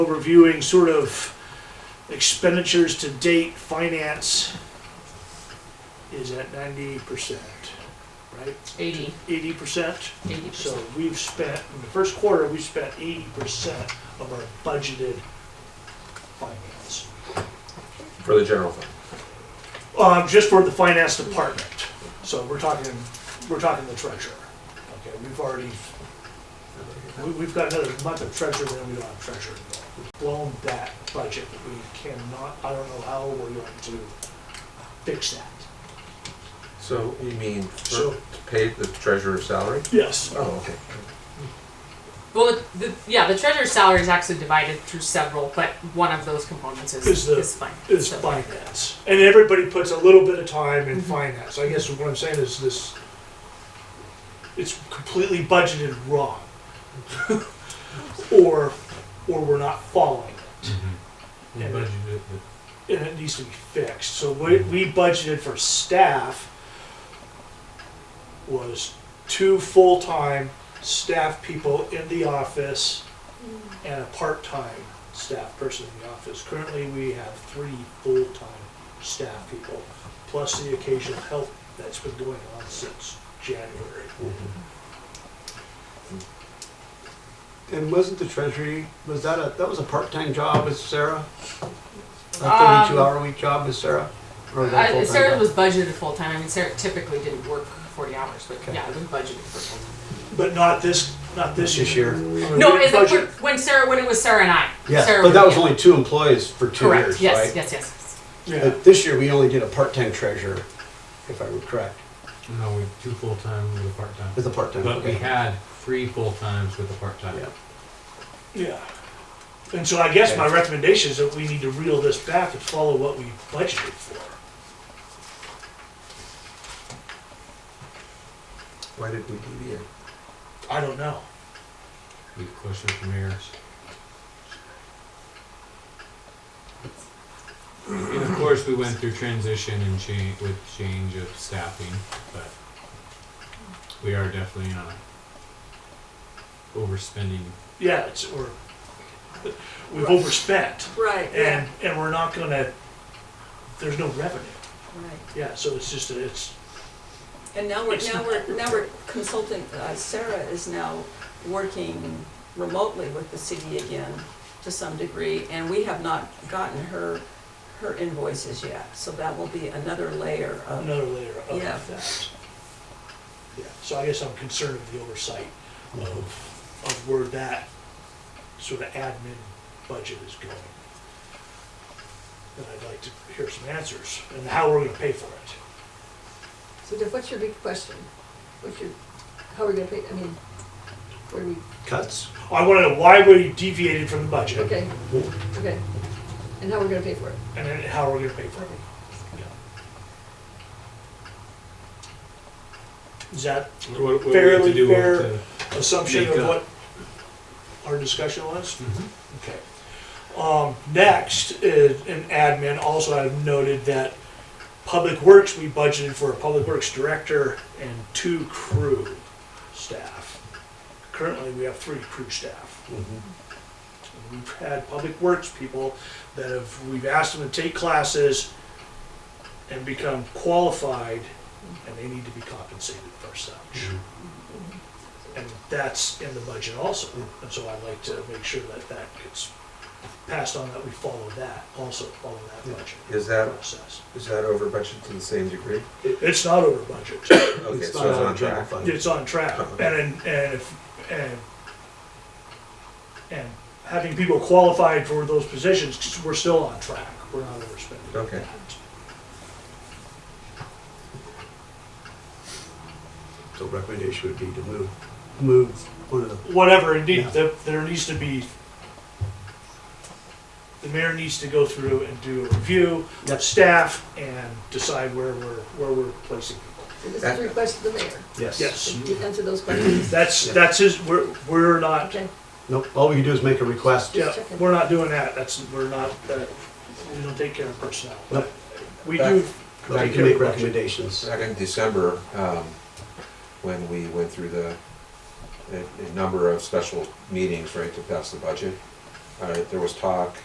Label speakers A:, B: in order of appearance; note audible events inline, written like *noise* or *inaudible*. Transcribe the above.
A: reviewing sort of expenditures to date, finance is at ninety percent, right?
B: 80,
A: Eighty percent?
B: 80%.
A: So we've spent, in the first quarter, we spent eighty percent of our budgeted finance.
C: for the general fund.
A: Um, just for the finance department. So we're talking, we're talking the treasurer. Okay, we've already, we, we've got another month of treasurer, then we don't have treasurer anymore. We've blown that budget. We cannot, I don't know how we're going to fix that.
C: So you mean for,
A: So-
C: to pay the treasurer's salary?
A: Yes.
C: Oh, okay.
B: Well, the, the, yeah, the treasurer's salary is actually divided through several, but one of those components is,
A: Is
B: is,
A: the-
B: fine.
A: It's
B: So-
A: finance. And everybody puts a little bit of time in finance. I guess what I'm saying is this, it's completely budgeted wrong. *laughs* Or, or we're not following it.
D: We
A: And-
D: budgeted it,
A: and it needs to be fixed. So what we budgeted for staff was two full-time staff people in the office and a part-time staff person in the office. Currently, we have three full-time staff people, plus the occasional help that's been going on since January.
E: And wasn't the treasury, was that a, that was a part-time job as Sarah? A
B: Um,
E: thirty-two hour week job as Sarah? Or was that a
B: Uh,
E: full-time
B: Sarah
E: job?
B: was budgeted full time. I mean, Sarah typically didn't work 40 hours, but yeah, it was budgeted for full time.
A: But not this, not this
E: This
A: year.
E: year?
B: No,
A: We didn't
B: is it
A: budget-
B: when, when Sarah when it was Sarah and I?
E: Yes,
B: Sarah
E: but that was
B: yeah.
E: only two employees for two
B: correct.
E: years,
B: yes,
E: right?
B: yes, yes, yes.
A: Yeah,
E: But this year, we only did a part-time treasurer, if I were correct,
D: but no, we two full-time with a part-time.
E: with a part-time.
D: But we
E: okay.
D: had three full-times with a part-time.
E: Yeah.
A: yeah. And so I guess my recommendation is that we need to reel this back and follow what we budgeted for.
C: Why did we deviate?
A: I don't know.
D: We questioned the mayor's. And of course, we went through transition and change, with change of staffing, but we are definitely not overspending.
A: Yeah, it's, we're, we've overspent
F: Right, yeah,
A: and, and we're not gonna, there's no revenue.
F: right.
A: Yeah, so it's just, it's,
F: And now we're,
A: It's
F: now
A: not-
F: we're, now we're consulting, uh, Sarah is now working remotely with the city again to some degree, and we have not gotten her, her invoices yet, so that will be another layer of,
A: another layer of
F: Yeah.
A: that. Yeah, so I guess I'm concerned with the oversight of, of where that sort of admin budget is going. And I'd like to hear some answers and how we're gonna pay for it.
G: So Jeff, what's your big question? What's your, how are we gonna pay, I mean, where do we,
E: Cuts?
A: I wanna know why we deviated from the budget
G: okay, okay. And how we're gonna pay for it?
A: and then how we're gonna pay for it.
G: Okay.
A: Is that
D: What- what we have to
A: Fairly
D: do with
A: fair.
D: the-
A: assumption
D: Make
A: of
D: up.
A: what our discussion was? Okay. Um, next is in admin, also I've noted that Public Works, we budgeted for a Public Works Director and two crew staff. Currently, we have three crew staff. We've had Public Works people that have, we've asked them to take classes and become qualified, and they need to be compensated for such. And that's in the budget also, and so I'd like to make sure that that gets passed on, that we follow that, also follow that budget
C: Is that,
A: process.
C: is that over budget to the same degree?
A: It's not over budget,
C: Okay, so it's
E: not out of
C: on
E: general
C: track.
E: fund.
A: it's on track, and, and if, and, and having people qualified for those positions, we're still on track, we're not overspending.
C: Okay.
E: So recommendation would be to move, move one of the,
A: Whatever, indeed,
E: Yeah.
A: there, there needs to be, the mayor needs to go through and do a review of
E: Yep.
A: staff and decide where we're, where we're placing people.
G: So This is a request of the mayor,
E: yes.
A: Yes,
G: to answer those questions.
A: that's,
E: Yeah.
A: that's his, we're, we're not,
G: Okay,
E: Nope, all we can do is make a request.
A: yeah,
G: checking.
A: we're not doing that, that's, we're not, that, we don't take care of personnel.
E: Nope.
A: We do,
E: But we
C: Back
E: can make
C: in-
E: recommendations.
C: back in December, um, when we went through the, a, a number of special meetings, right, to pass the budget, uh, there was talk